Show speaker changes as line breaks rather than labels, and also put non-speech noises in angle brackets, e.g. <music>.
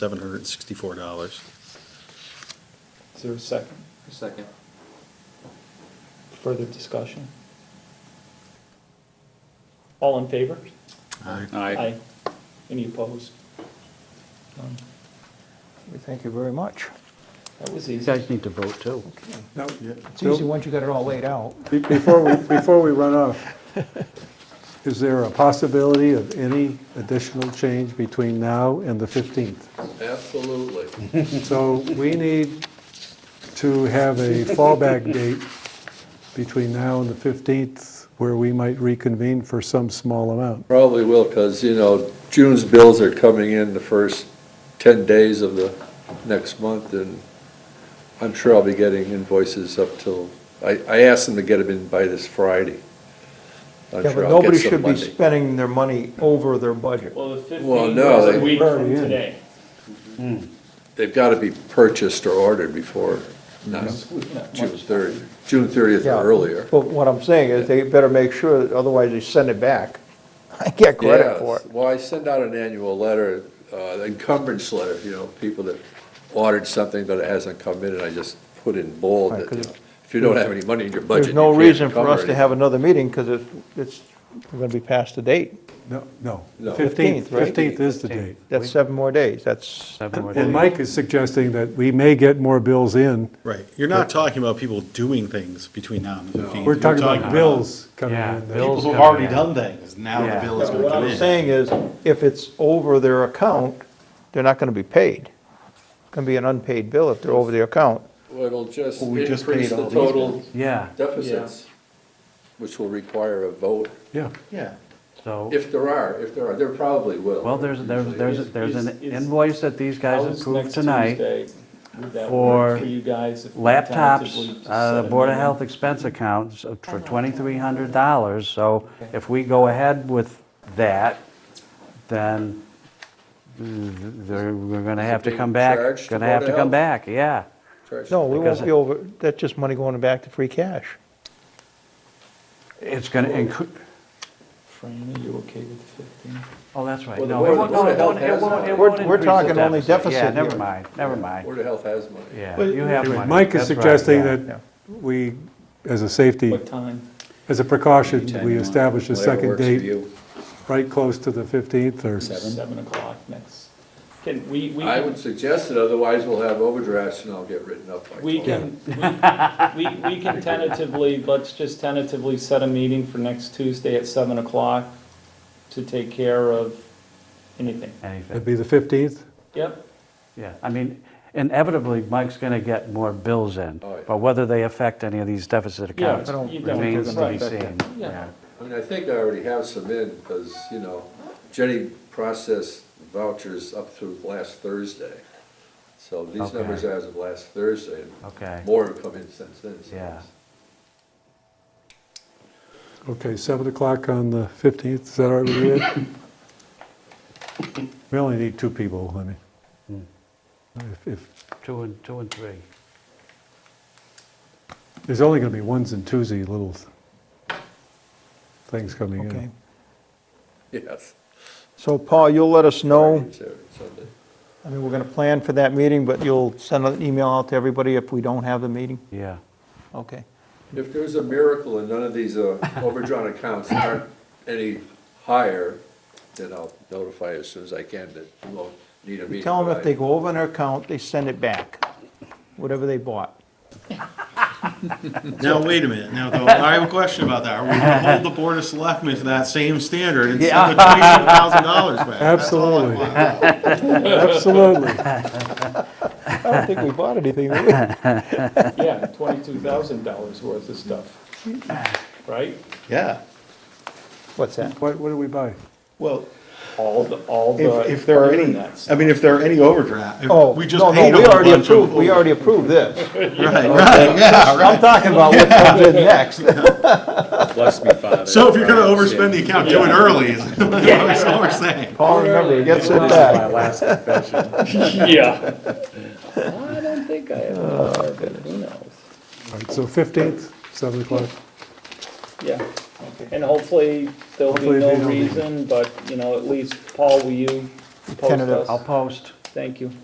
seven hundred and sixty-four dollars.
Is there a second?
Second.
Further discussion? All in favor?
Aye.
Any opposed? None.
We thank you very much.
That was
You
easy.
guys need to vote, too.
Now,
It's easy once you got it all laid out.
be- before we, before we run off, is there a possibility of any additional change between now and the 15th?
Absolutely.
So we need to have a fallback date between now and the 15th where we might reconvene for some small amount.
Probably will, because, you know, June's bills are coming in the first 10 days of the next month, and I'm sure I'll be getting invoices up till, I, I asked them to get them in by this Friday. I'm
Yeah,
sure
but
I'll get
nobody
some
should be
Monday.
spending their money over their budget.
Well, the
Well,
15th
no,
was a
they-
week from
Already in.
today.
They've got to be purchased or ordered before, not June 30th, June 30th
Yeah.
or earlier.
But what I'm saying is they better make sure, that otherwise they send it back. <laughs> I get credit
Yes.
for it.
Well, I send out an annual letter, uh, encumbrance letter, you know, people that ordered something but it hasn't come in, and I just put in bold
Right,
that, you
'cause
know, if you don't have any money in your budget.
There's no
you can't
reason for
encumber
us to
anything.
have another meeting because it's, it's going to be past the date.
No, no.
No.
15th,
15th, right?
15th is the date.
That's seven more days. That's,
And Mike is suggesting that we may get more bills in.
Right, you're not talking about people doing things between now and the fifteenth.
We're talking about bills coming
Yeah,
in.
bills.
People who've
coming
already
in.
done things, now the
Yeah.
bill is gonna
what
come
I'm
in.
saying is, if it's over their account, they're not going to be paid. It's going to be an unpaid bill if they're over their account.
Well, it'll just
Well, we just
increase
paid all
the
these
total
Yeah,
deficits, which will require a vote,
Yeah,
Yeah,
so,
if there are, if there are, there probably will.
well, there's, there's, there's, there's
Is-
an
is-
invoice that these guys
How's
approved
next
tonight.
Tuesday? Would that
for
work for you guys if we tentatively
Laptops,
just
uh,
set a
Board of
meeting?
Health expense accounts of- for twenty-three hundred dollars, so if we go ahead with that, then mm, they're, we're gonna have to
being
come back,
charged to
gonna
Board
have
of
to come
Health?
back, yeah.
No, we
Because
won't be over, that's just money going back to free cash.
It's gonna incre,
Fran, are you okay with the 15th?
oh, that's right,
Well, the
no,
Board-
it won't,
the Board
no,
of
it
Health
won't, it
has
won't,
money.
it
We're-
won't
we're
increase the
talking only
Yeah,
deficit
never
here.
mind, never mind,
Board of Health has money.
yeah,
But-
you have money.
Mike is
That's right,
suggesting
yeah.
that we, as a safety,
What time?
as a precaution, we establish a
Whatever
second
works for
date
you.
right close to the 15th or
Seven o'clock next. Can, we, we.
I
can-
would suggest it, otherwise we'll have overdrafts and I'll get written up by.
We
tomorrow.
can, we, we- we can tentatively, let's just tentatively set a meeting for next Tuesday at seven o'clock to take care of anything.
Anything.
It'd be the 15th?
Yep,
Yeah, I mean, inevitably, Mike's going to get more bills in,
Oh, yeah.
but whether they affect any of these deficit
Yeah,
accounts
I don't- you don't-
remains to be
right.
seen.
Yeah.
Yeah.
I mean, I think I already have some in, because, you know, Jenny processed vouchers up through last Thursday. So these
Okay.
numbers are as of last Thursday,
Okay.
and more have come in since then. so
Yeah.
Okay, 7 o'clock on the 15th, is that all right with you? Ed?
<laughs>
We only need two people, I mean. hmm. If- If,
Two and, two and three.
there's only going to be ones and twosy little things coming
Okay.
in.
<laughs> Yes.
So Paul, you'll let us know,
Friday, Saturday, Sunday.
I mean, we're going to plan for that meeting, but you'll send an email out to everybody if we don't have the meeting?
Yeah.
Okay.
If there's a miracle and none of these uh, overdrawn accounts aren't any higher, then I'll notify as soon as I can that we won't need a meeting.
Tell them if
but
they
I-
go over on their account, they send it back, whatever they bought.
now, wait a minute,
<laughs>
now, though, I have a question about that, are we gonna hold the board of selectmen to that same standard and send the twenty-one thousand dollars back? That's all I
Absolutely.
want.
<laughs>
Absolutely.
I don't think we bought anything, did we?
yeah, twenty-two thousand dollars worth of stuff, right?
Yeah,
What's that?
What what do we buy?
well,
All the, all
if,
the
if there are any,
internets.
I mean, if there are any overdraft,
Oh,
if we just
no,
paid them
no, we
a
already
bunch
approved,
of.
we already approved this.
<laughs> Right, right, yeah, right.
I'm talking about what comes in
<laughs>
next.
Bless me, Father.
So if you're gonna overspend the account, do it early, is <laughs> that's all we're saying.
Paul, remember, he gets it back.
last confession.
Yeah,
I don't think I have, who knows?
All right, so 15th, 7 o'clock.
yeah. And hopefully, there'll be
Hopefully
no
they don't need it.
reason, but, you know, at least, Paul, will you post
Tentative.
us?
I'll post.
Thank you.